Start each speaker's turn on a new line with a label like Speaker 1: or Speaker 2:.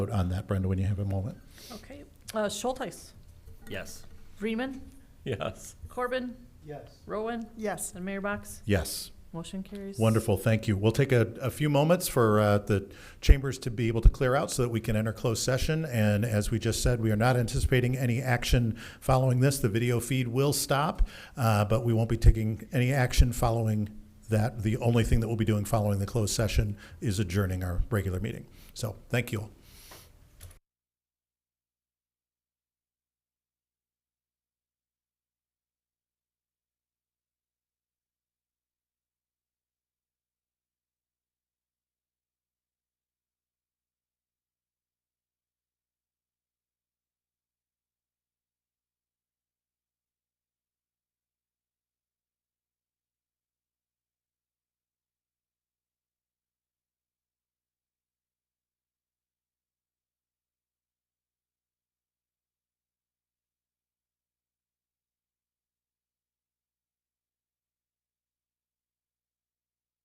Speaker 1: vote on that, Brenda, when you have a moment.
Speaker 2: Okay, uh, Schultheis,
Speaker 3: Yes.
Speaker 2: Freeman,
Speaker 3: Yes.
Speaker 2: Corbin,
Speaker 4: Yes.
Speaker 2: Rowan,
Speaker 5: Yes.
Speaker 2: and Mayor Box.
Speaker 1: Yes,
Speaker 2: Motion carries.
Speaker 1: wonderful, thank you. We'll take a, a few moments for uh, the chambers to be able to clear out so that we can enter closed session. And as we just said, we are not anticipating any action following this. The video feed will stop, uh, but we won't be taking any action following that. The only thing that we'll be doing following the closed session is adjourning our regular meeting. So, thank you all.